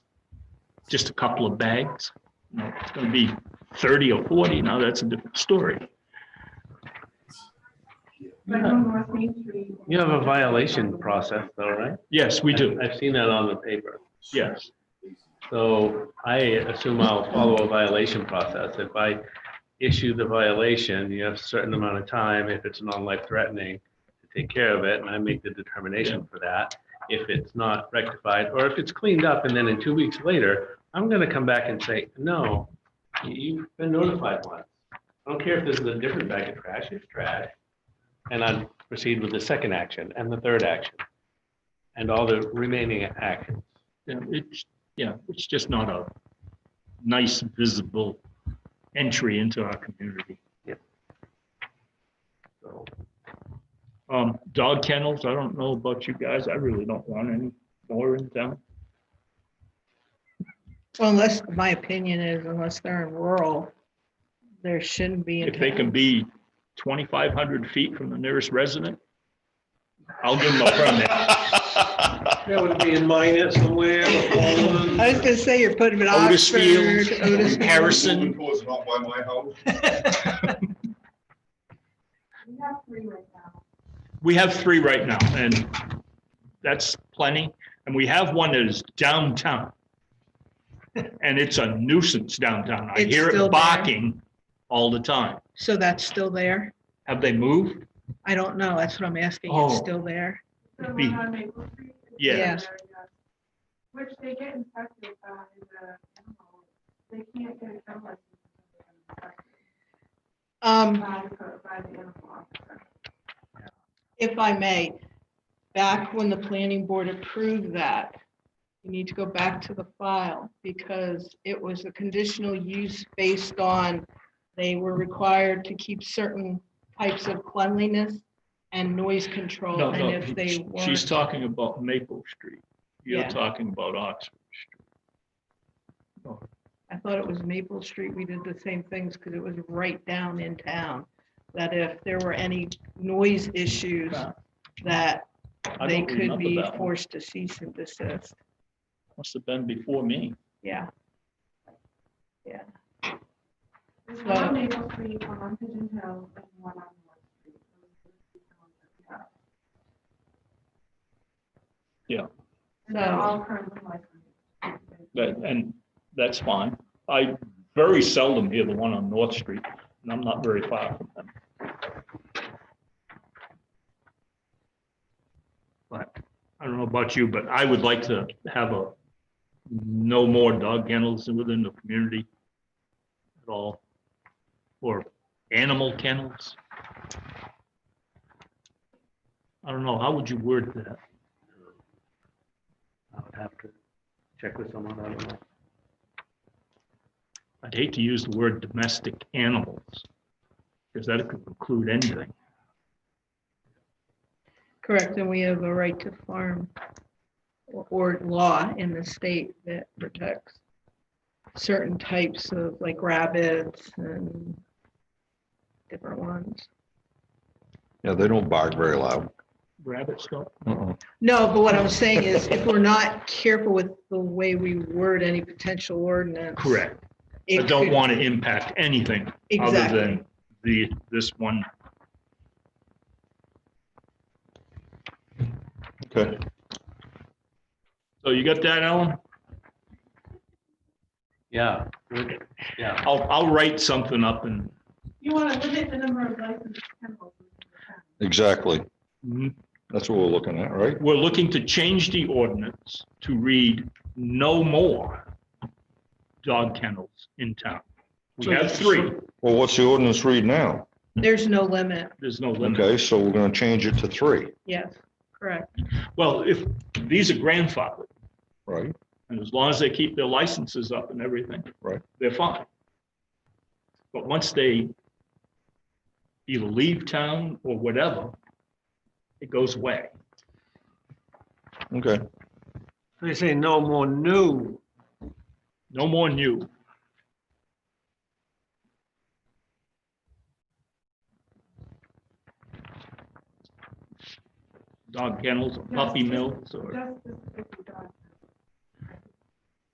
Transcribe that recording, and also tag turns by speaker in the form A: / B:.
A: just a couple of bags. You know, It's gonna be thirty or forty, now that's a different story.
B: But on North Main Street.
C: You have a violation process though, right?
A: Yes, we do,
C: I've seen that on the paper.
A: yes.
C: So I assume I'll follow a violation process. If I issue the violation, you have a certain amount of time, if it's non-life threatening, to take care of it, and I make the determination for that. If it's not rectified, or if it's cleaned up, and then in two weeks later, I'm gonna come back and say, no, you- you've been notified once. I don't care if this is a different bag of trash, it's trash. And I proceed with the second action and the third action, and all the remaining actions.
A: Yeah, it's, yeah, it's just not a nice visible entry into our community.
C: So
A: Um, dog kennels, I don't know about you guys, I really don't want any more in town.
D: Well, unless, my opinion is unless they're in rural, there shouldn't be. in
A: If they
D: town.
A: can be twenty-five hundred feet from the nearest resident, I'll give them a permit.
C: That would be in minus somewhere.
D: I was gonna say you're putting them in Otisfield,
E: Otisfield,
D: Otis.
E: Harrison. is not by my house.
B: We have three right now.
A: We have three right now, and that's plenty. And we have one that is downtown. And it's a nuisance downtown. I
D: It's
A: hear
D: still
A: it
D: there.
A: barking all the time.
D: So that's still there?
A: Have they moved?
D: I don't know. That's what I'm asking.
A: Oh.
D: It's still there?
B: So
A: It'd
B: the
A: be-
B: one on Maple Street is
A: Yeah.
D: Yes.
B: there, yes. Which they get infected by uh, the animal. They can't get a gun license.
D: Um,
B: By the, by the animal officer.
D: if I may, back when the planning board approved that, you need to go back to the file because it was a conditional use based on they were required to keep certain types of cleanliness and noise control.
A: No,
D: And
A: no.
D: if they
A: She's
D: weren't,
A: talking about Maple Street. You're
D: Yeah.
A: talking about Oxford Street.
D: I thought it was Maple Street, we did the same things because it was right down in town. That if there were any noise issues,
A: Wow.
D: that
A: I
D: they
A: don't
D: could
A: remember
D: be
A: that one.
D: forced to cease and desist.
A: Must have been before me.
D: Yeah.
B: There's one
D: So-
B: on Maple Street, one on Pigeon Hill, and one on North Street.
A: Yeah.
B: And they're
D: So-
B: all currently licensed.
A: That, and that's fine. I very seldom hear the one on North Street, and I'm not very far from them. But I don't know about you, but I would like to have a no more dog kennels within the community at all, or animal kennels. I don't know, how would you word that?
C: I would have to check with someone, I don't know.
A: I'd hate to use the word domestic animals, because that could include anything.
D: Correct, and we have a right to farm or- or law in the state that protects certain types of like rabbits and different ones.
F: Yeah, they don't bark very loud.
A: Rabbits don't,
D: No, but what I'm saying is if we're not careful with the way we word any potential ordinance.
A: correct.
D: it
A: I don't
D: could-
A: want to impact anything other
D: Exactly.
A: than the, this one.
F: Okay.
A: So you got that, Ellen?
C: Yeah, good, yeah.
A: I'll, I'll write something up and
B: You want to limit the number of licensed kennels. in the town.
F: Exactly.
A: mm,
F: That's what we're looking at, right?
A: we're looking to change the ordinance to read no more dog kennels in town. We have three,
F: Well, what's the ordinance read now?
D: There's no limit.
A: there's no limit.
F: Okay, so we're gonna change it to three,
D: Yes, correct.
A: Well, if, these are grandfathered.
F: right?
A: And as long as they keep their licenses up and everything.
F: Right.
A: They're fine. But once they either leave town or whatever, it goes away.
F: Okay.
C: They say no more new.
A: No more new. Dog kennels, puppy mills, or
B: Just specifically dogs.